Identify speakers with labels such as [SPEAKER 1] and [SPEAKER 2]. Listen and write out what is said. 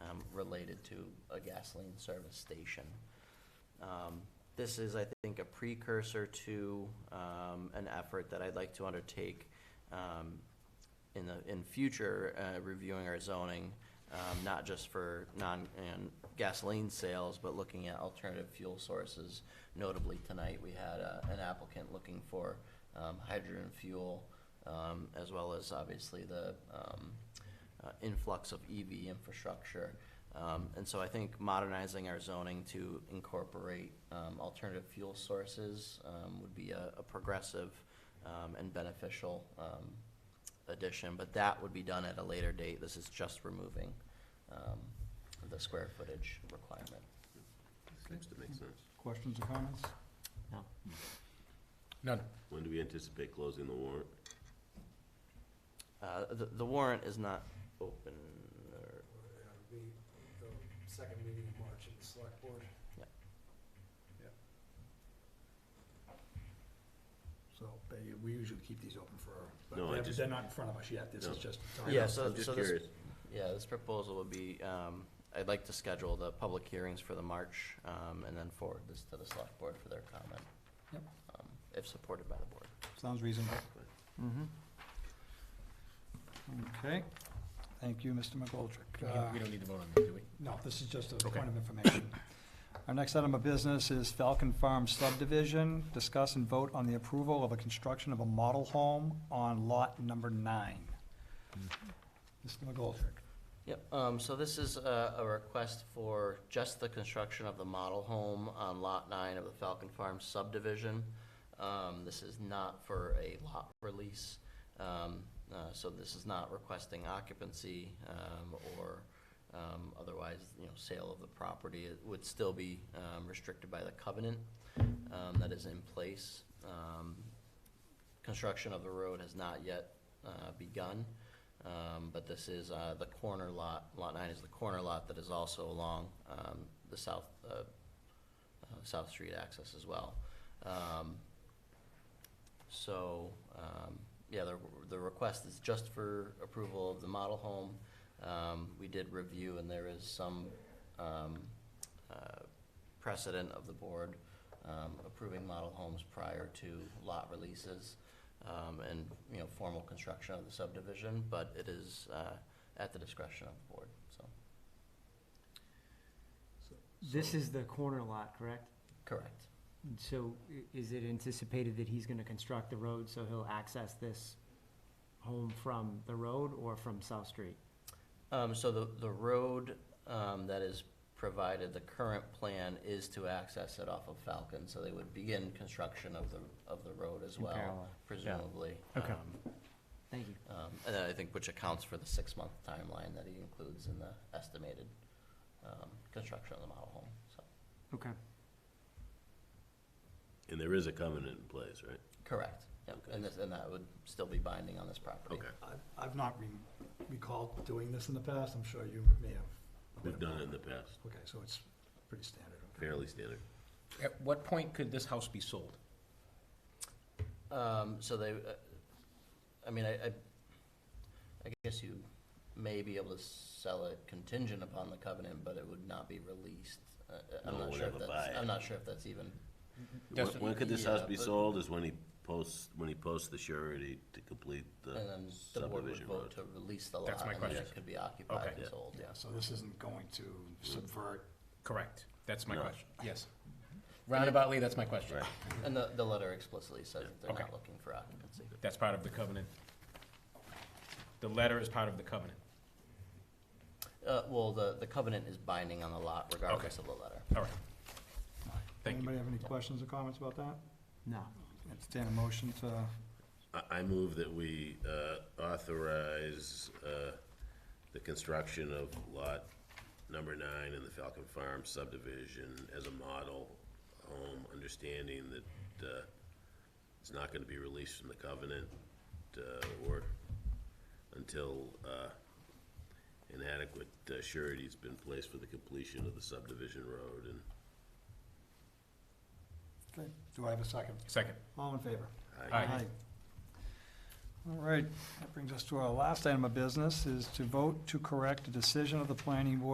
[SPEAKER 1] um, related to a gasoline service station. Um, This is, I think, a precursor to um, an effort that I'd like to undertake um, in the, in future, uh, reviewing our zoning, um, not just for non, and gasoline sales, but looking at alternative fuel sources. Notably, tonight, we had uh, an applicant looking for um, hydrogen fuel, um, as well as obviously the um, uh, influx of EV infrastructure. Um, And so I think modernizing our zoning to incorporate um, alternative fuel sources um, would be a a progressive um, and beneficial um, addition, but that would be done at a later date. This is just removing um, the square footage requirement.
[SPEAKER 2] Seems to make sense.
[SPEAKER 3] Questions or comments?
[SPEAKER 1] No.
[SPEAKER 4] None.
[SPEAKER 2] When do we anticipate closing the warrant?
[SPEAKER 1] Uh, The the warrant is not open, or,
[SPEAKER 5] It'll be the second meeting in March at the select board.
[SPEAKER 4] So they, we usually keep these open for,
[SPEAKER 2] No, I
[SPEAKER 4] but they're-
[SPEAKER 2] just-
[SPEAKER 4] they're not in front of us yet, this
[SPEAKER 2] No.
[SPEAKER 4] is just.
[SPEAKER 1] Yeah, so-
[SPEAKER 2] I'm just
[SPEAKER 1] this-
[SPEAKER 2] curious.
[SPEAKER 1] yeah, this proposal would be, um, I'd like to schedule the public hearings for the March um, and then forward this to the select board for their comment.
[SPEAKER 3] Yep.
[SPEAKER 1] um, If supported by the board.
[SPEAKER 3] Sounds reasonable.
[SPEAKER 2] Mm-hmm.
[SPEAKER 3] Okay, thank you, Mr. McGoldrick. Uh,
[SPEAKER 4] We don't need to vote on that, do we?
[SPEAKER 3] No, this is just a point of information. Our next item of business is Falcon Farm subdivision. Discuss and vote on the approval of a construction of a model home on lot number nine.
[SPEAKER 6] Hmm.
[SPEAKER 3] Mr. McGoldrick.
[SPEAKER 1] Yep, um, so this is a, a request for just the construction of the model home on Lot Nine of the Falcon Farm subdivision. Um, this is not for a lot release, um, uh, so this is not requesting occupancy, um, or, um, otherwise, you know, sale of the property. It would still be, um, restricted by the covenant, um, that is in place. Um, construction of the road has not yet, uh, begun. Um, but this is, uh, the corner lot, lot nine is the corner lot that is also along, um, the south, uh, uh, South Street access as well. Um, so, um, yeah, the, the request is just for approval of the model home. Um, we did review and there is some, um, uh, precedent of the board, um, approving model homes prior to lot releases um, and, you know, formal construction of the subdivision, but it is, uh, at the discretion of the board, so.
[SPEAKER 7] This is the corner lot, correct?
[SPEAKER 1] Correct.
[SPEAKER 7] So i- is it anticipated that he's gonna construct the road, so he'll access this home from the road or from South Street?
[SPEAKER 1] Um, so the, the road, um, that is provided, the current plan is to access it off of Falcon, so they would begin construction of the, of the road as
[SPEAKER 7] In
[SPEAKER 6] Oh.
[SPEAKER 1] well,
[SPEAKER 7] parallel.
[SPEAKER 1] presumably.
[SPEAKER 7] Okay.
[SPEAKER 1] Um,
[SPEAKER 7] Thank you.
[SPEAKER 1] Um, and then I think which accounts for the six-month timeline that he includes in the estimated, um, construction of the model home, so.
[SPEAKER 7] Okay.
[SPEAKER 2] And there is a covenant in place, right?
[SPEAKER 1] Correct, yep, and this, and that would still be binding on this property.
[SPEAKER 2] Okay.
[SPEAKER 4] I've- I've not re- recalled doing this in the past, I'm sure you may have. a bit
[SPEAKER 2] We've done it in the
[SPEAKER 4] of-
[SPEAKER 2] past,
[SPEAKER 4] Okay, so it's pretty standard. okay.
[SPEAKER 2] fairly standard.
[SPEAKER 6] At what point could this house be sold?
[SPEAKER 1] Um, so they, uh, I mean, I, I, I guess you may be able to sell it contingent upon the covenant, but it would not be released. Uh, uh, I'm
[SPEAKER 2] No
[SPEAKER 1] not
[SPEAKER 2] one
[SPEAKER 1] sure if
[SPEAKER 2] ever buy
[SPEAKER 1] that's,
[SPEAKER 2] it.
[SPEAKER 1] I'm not sure if that's even,
[SPEAKER 2] When,
[SPEAKER 6] Doesn't-
[SPEAKER 2] when could this house
[SPEAKER 1] Yeah,
[SPEAKER 2] be
[SPEAKER 1] but-
[SPEAKER 2] sold is when he posts, when he posts the surety to complete
[SPEAKER 1] and
[SPEAKER 2] the
[SPEAKER 1] then the board would
[SPEAKER 2] subdivision
[SPEAKER 1] vote
[SPEAKER 2] road.
[SPEAKER 1] to release the lot.
[SPEAKER 6] That's my
[SPEAKER 1] And then it
[SPEAKER 6] question.
[SPEAKER 1] could be occupied
[SPEAKER 6] Okay.
[SPEAKER 1] and sold,
[SPEAKER 4] Yeah,
[SPEAKER 1] yeah.
[SPEAKER 4] so this isn't going to subvert
[SPEAKER 6] Correct. That's my
[SPEAKER 2] No.
[SPEAKER 6] question. Yes. Roundaboutly, that's my question.
[SPEAKER 2] Right,
[SPEAKER 1] And the, the letter explicitly says that they're not
[SPEAKER 6] Okay.
[SPEAKER 1] looking for occupancy.
[SPEAKER 6] That's part of the covenant. The letter is part of the covenant.
[SPEAKER 1] Uh, well, the, the covenant is binding on the lot regardless of the letter.
[SPEAKER 6] All right. Thank you.
[SPEAKER 3] Anybody have any questions or comments about that?
[SPEAKER 7] No.
[SPEAKER 3] Entertain a motion to,
[SPEAKER 2] I, I move that we, uh, authorize, uh, the construction of lot number nine in the Falcon Farm subdivision as a model home, understanding that, uh, it's not gonna be released from the covenant, uh, or until, uh, an adequate uh, surety's been placed for the completion of the subdivision road and,
[SPEAKER 3] okay, do I have a second?
[SPEAKER 6] Second.
[SPEAKER 3] All in favor?
[SPEAKER 2] I,
[SPEAKER 6] Aye.
[SPEAKER 3] All right, that brings us to our last item of business, is to vote to correct a decision of the planning board